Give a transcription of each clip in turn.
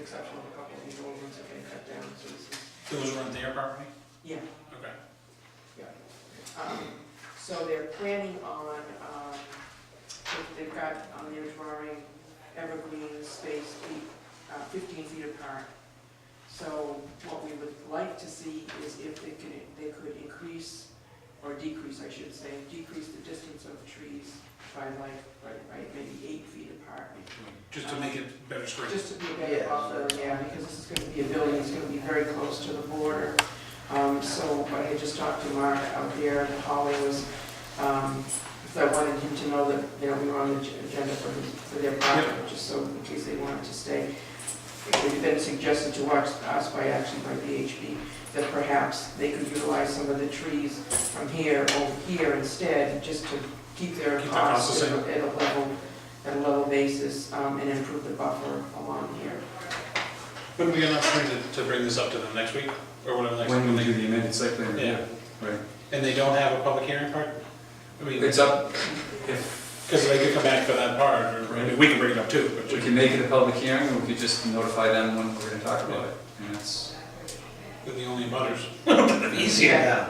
exception of a couple of these old ones that they cut down, so this is, Those were on their property? yeah. Okay. Um, So they're planning on, um, if they've got on their drawing evergreen space eight- uh, 15 feet apart. So what we would like to see is if they could, they could increase, or decrease, I should say, decrease the distance of trees by like, right, right, maybe eight feet apart. Just to make it better screened. Just to be a better buffer, yeah, because this is gonna be a building, that's gonna be very close to the border. Um, so, but I just talked to Mark out there, and Holly was, um, because I wanted him to know that, you know, we were on the ag- agenda for, his- for their project, just so in case they wanted to stay. It had been suggested to us, us by actually by VHB, that perhaps they could utilize some of the trees from here over here instead, just to keep their Keep their costs costs the at same. a at a level, at a level basis, um, and improve the buffer along here. Wouldn't we get an opportunity to- to bring this up to them next week, or whatever next week? When we do they- the amended site plan review, Yeah, right? and they don't have a public hearing part? I mean, It's up, if because they could come back for that part, or, I mean, we can bring it up too, but we can make it a public hearing, or we could just notify them when we're gonna talk about it. And that's, we're the only butters. Yeah.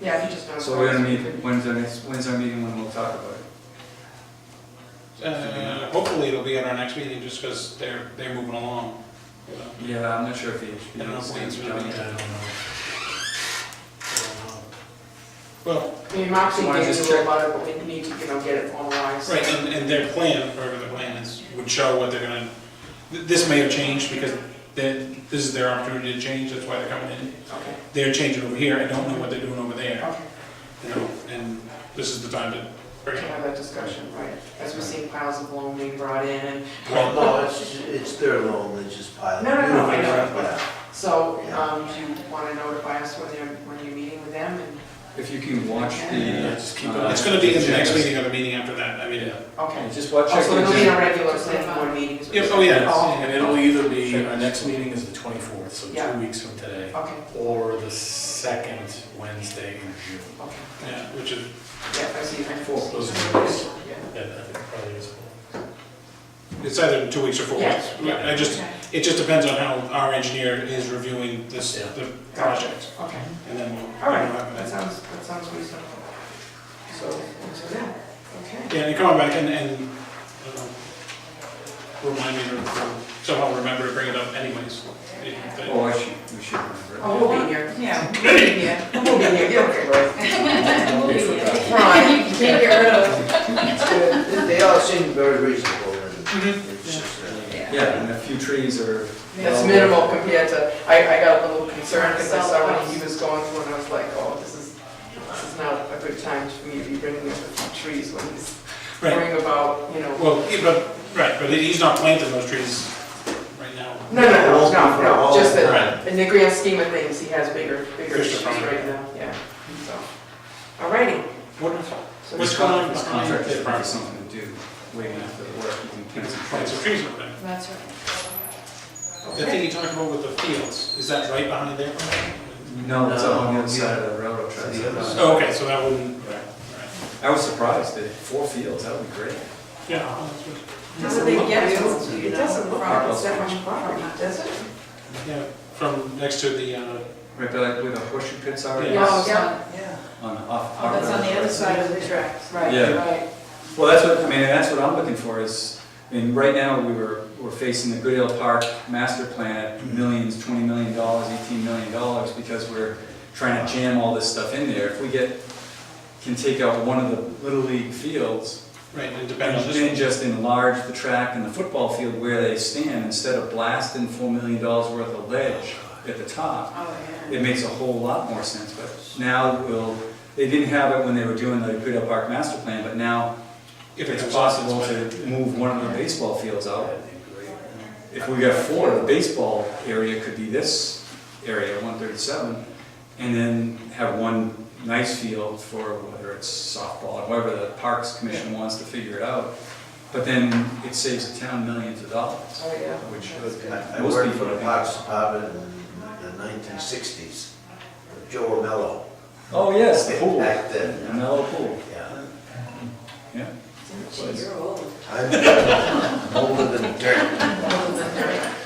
Yeah, he just knows. so we're gonna meet, when's our next, when's our meeting when we'll talk about it? Uh, hopefully it'll be at our next meeting, just because they're, they're moving along, you know. Yeah, I'm not sure if the HB. I don't know if is it's gonna be really- done. I don't know. I don't know. Well, I mean, Moxie So gave why don't you you a just check- little lot of, but we need to, you know, get it formalized. right, and, and their plan, whatever the plan is, would show what they're gonna, th- this may have changed, because they- this is their opportunity to change, that's why they're coming in. Okay, They're changing over here, I don't know what they're doing over there. okay, you know, and this is the time to bring to it. have that discussion, right, as we're seeing piles of loam being brought in, and Well, Well, no, no, it's, it's their loan, they just pile. No, no, no, I know. Yeah. so, um, do you wanna notify us when you're, when you're meeting with them, and, If you can watch Yeah, the. uh, It's gonna be in the next agendas. meeting or the meeting after that, I mean, okay. Yeah, just watch. Oh, our so it'll be agenda. a regular planning board meeting? is what yeah, you're oh, saying? yeah, And and it'll it'll, either be, our next meeting is the 24th, so Yeah. two weeks from today, Oh, Okay, or the second Wednesday in June. okay, yeah, which is, yeah, I see, thank you. Four, those are the days. Yeah. Yeah, I think probably is. it's either in two weeks or four weeks. Yes. I just, Okay. it just depends on how our engineer is reviewing this, Yeah. the project, Okay, and then we'll. all right, we'll have that that. sounds, that sounds reasonable. So, so, yeah, okay. Yeah, and come on back and, and, I don't know, remind me, to- somehow remember to bring it up anyways. It- it- Oh, I should, we should remember. Oh, we'll be here. Yeah. We'll be here. We'll be here, you We forgot. Right. You can't get rid of. They- They all seem very reasonable and Mhm. it's just, uh, Yeah, and a few trees are. It's minimal compared to, I, I got a little concerned because I saw when he was going through and I was like, oh, this is, this is not a good time for me to be bringing up the trees when he's Right, worrying about, you know. well, yeah, but, right, but he's not planting those trees right now. No, no, no, no, no, just that, Right. in the grand scheme of things, he has bigger, bigger Fish issues to fry. right now, yeah, so. Alrighty. Wonderful. so- What's going on with This the contract? contract is probably something to do, waiting after the work, you can plant some Plant trees. some trees over there. That's right. The thing you talked about with the fields, is that right behind there? No, it's up on the No, other side of the railroad tracks. the other Oh, okay, so that wouldn't, right, right. I was surprised that four fields, that would be great. yeah. oh, that's good. Doesn't it, yeah, it doesn't, it doesn't look like it's that much property, does it? Yeah, from next to the, uh, Right, but like where the horseshoe pits are? Yeah. Oh, yes, yeah, On, off. Oh, that's on the other side of the tracks. right, Yeah. right, Well, that's what, I mean, that's what I'm looking for is, I mean, right now, we were, we're facing the Goodale Park master plan at millions, twenty million dollars, eighteen million dollars, because we're trying to jam all this stuff in there. If we get, can take out one of the Little League fields, right, and depend on And this then one. just enlarge the track and the football field where they stand, instead of blasting four million dollars worth of ledge at the top, Oh, yeah. it makes a whole lot more sense, but now we'll, they didn't have it when they were doing the Goodell Park master plan, but now If it it's comes up, possible better. to move one of the baseball fields out. If we got four, the baseball area could be this area, one thirty-seven, and then have one nice field for whether it's softball, or whatever the Parks Commission wants to figure it out. But then it saves the town millions of dollars, oh, yeah. which, I I Most worked people for the think- Parks Department in the 1960s, Joe Romello. oh yes, the pool, Back then. the mellow pool, Yeah. yeah. Gee, you're old. I'm older than dirt. Older than her.